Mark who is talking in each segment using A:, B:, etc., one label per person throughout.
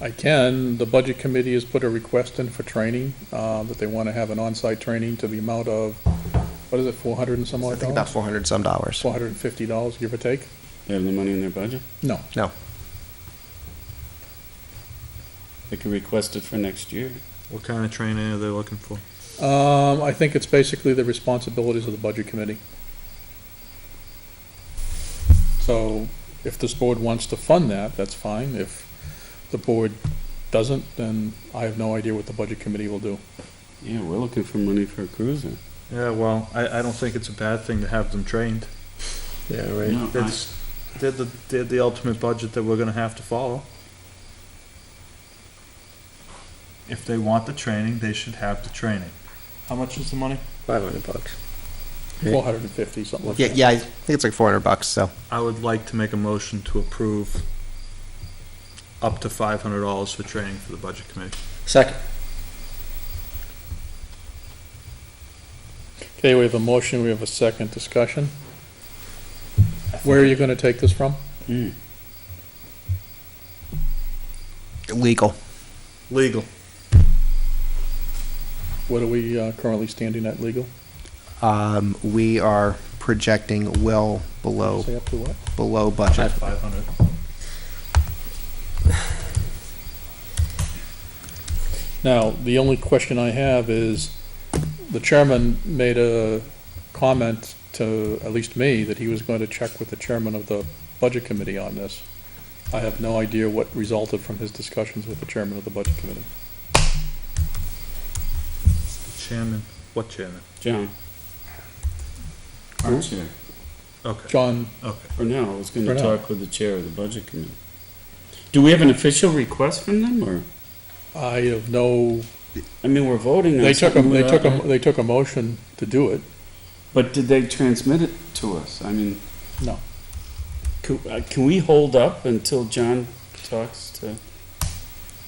A: I can, the Budget Committee has put a request in for training, uh, that they want to have an on-site training to the amount of, what is it, 400 and some
B: I
A: odd
B: think about
A: dollars?
B: four hundred some dollars.
A: 450 dollars, give or take?
C: They have the money in their budget?
A: No.
B: No,
C: They could request it for next year.
D: What kind of training are they looking for?
A: Um, I think it's basically the responsibilities of the Budget Committee. So if this board wants to fund that, that's fine. If the board doesn't, then I have no idea what the Budget Committee will do.
C: Yeah, we're looking for money for a cruiser.
D: Yeah, well, I, I don't think it's a bad thing to have them trained.
B: yeah,
C: No, I-
D: That's, they're the, they're the ultimate budget that we're gonna have to follow. If they want the training, they should have the training. How much is the money?
B: Five hundred bucks. Yeah.
A: 450, something like
B: Yeah,
A: that.
B: yeah, I think it's like four hundred bucks, so.
D: I would like to make a motion to approve up to five hundred dollars for training for the budget committee.
B: Second.
A: Okay, we have a motion, we have a second discussion. Where are you gonna take this from?
C: Mm.
B: Legal.
D: Legal.
A: What are we uh, currently standing at legal?
B: Um, we are projecting well below,
A: Say up to what?
B: below budget.
D: Five hundred.
A: Now, the only question I have is, the chairman made a comment to, at least me, that he was going to check with the chairman of the budget committee on this. I have no idea what resulted from his discussions with the chairman of the budget committee.
D: Chairman, what chairman?
C: John? Our chair.
D: Okay,
A: John,
D: okay.
C: For now, I was
A: For
C: gonna
A: now.
C: talk with the chair of the budget committee. Do we have an official request from them, or,
A: I have no,
C: I mean, we're voting on
A: they took, a-
C: something
A: they took,
C: without-
A: a- they took a motion to do it.
C: But did they transmit it to us? I mean.
A: No.
C: Can, uh, can we hold up until John talks to?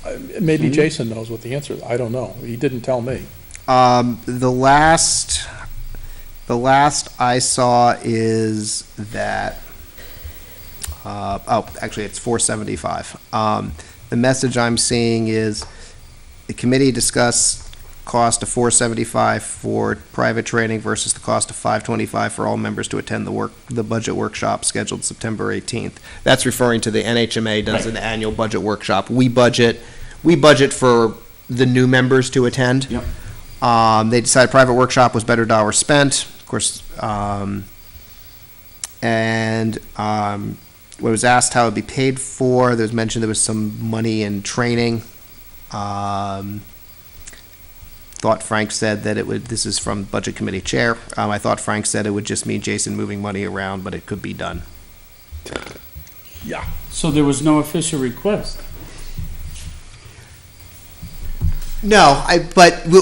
A: I- Uh, Maybe
C: Hmm.
A: Jason knows what the answer is, I don't know, he didn't tell me.
B: Um, the last, the last I saw is that, uh, oh, actually, it's four seventy-five. Um, the message I'm seeing is the committee discussed cost of four seventy-five for private training versus the cost of five twenty-five for all members to attend the work, the budget workshop scheduled September eighteenth. That's referring to the NHMA does an annual budget workshop. We budget, we budget for the new members to attend.
C: Yep.
B: Um, they decided private workshop was better dollar spent, of course. Um, and um, when it was asked how it would be paid for, there was mentioned there was some money in training. Um, thought Frank said that it would, this is from budget committee chair. Um, I thought Frank said it would just mean Jason moving money around, but it could be done.
C: So there was no official request.
B: No, I, but we,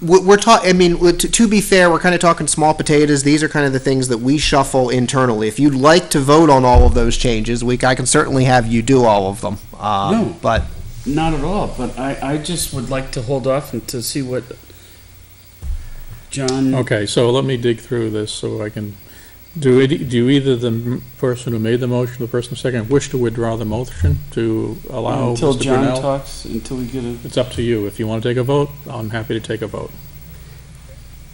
B: we, we're talking, I mean, w- to, to be fair, we're kind of talking small potatoes. These are kind of the things that we shuffle internally. If you'd like to vote on all of those changes, we, I can certainly have you do all of them. Um,
C: No.
B: But
C: Not at all, but I, I just would like to hold off and to see what John.
A: Okay, so let me dig through this so I can, do, it- do either the m- person who made the motion, the person second, wish to withdraw the motion to allow
C: Until
A: Mr.
C: John
A: Brunel?
C: talks, until we get a,
A: It's up to you. If you want to take a vote, I'm happy to take a vote.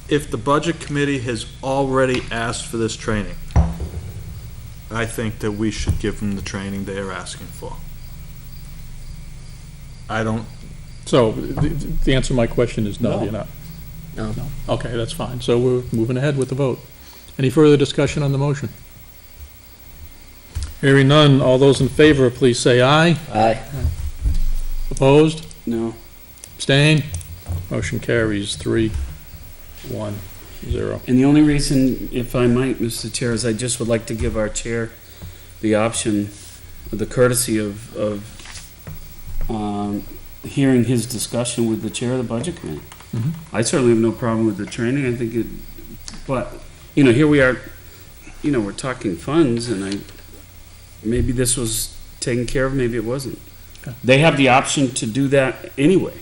D: if the budget committee has already asked for this training, I think that we should give them the training they are asking for. I don't,
A: So the, the answer to my question is no,
C: No.
A: you're not.
B: No.
A: Okay, that's fine. So we're moving ahead with the vote. Any further discussion on the motion? Hearing none, all those in favor, please say aye.
B: Aye.
A: Opposed?
C: no,
A: Abstain? Motion carries three, one, zero.
C: and the only reason, if I might, Mr. Chair, is I just would like to give our chair the option, the courtesy of, of, um, hearing his discussion with the chair of the budget committee.
A: Mhm.
C: I certainly have no problem with the training, I think it, but, you know, here we are, you know, we're talking funds, and I, maybe this was taken care of, maybe it wasn't.
A: Okay.
C: They have the option to do that anyway.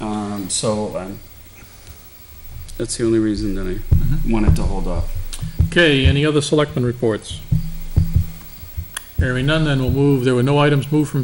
C: Um, so, um, that's the only reason that I wanted to hold off.
A: Okay, any other selectmen reports? Hearing none, then we'll move, there were no items moved from